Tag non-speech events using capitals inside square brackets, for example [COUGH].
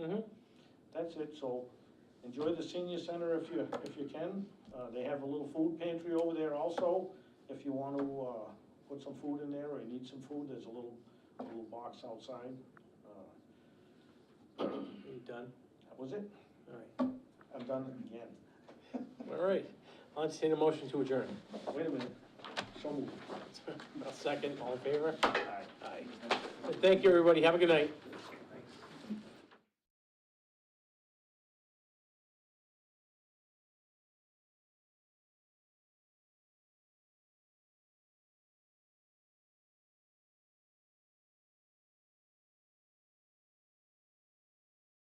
Mm-hmm. that's it, so enjoy the senior center if you, if you can. Uh, They have a little food pantry over there also, if you want to uh, put some food in there or you need some food, there's a little, a little box outside. Uh, You done? That was it, All right. I've done it again. All right. I'll entertain a motion to [LAUGHS] adjourn. Wait a minute, so moved. Second, all in favor? Aye. Aye. Thank you, everybody. Have a good night.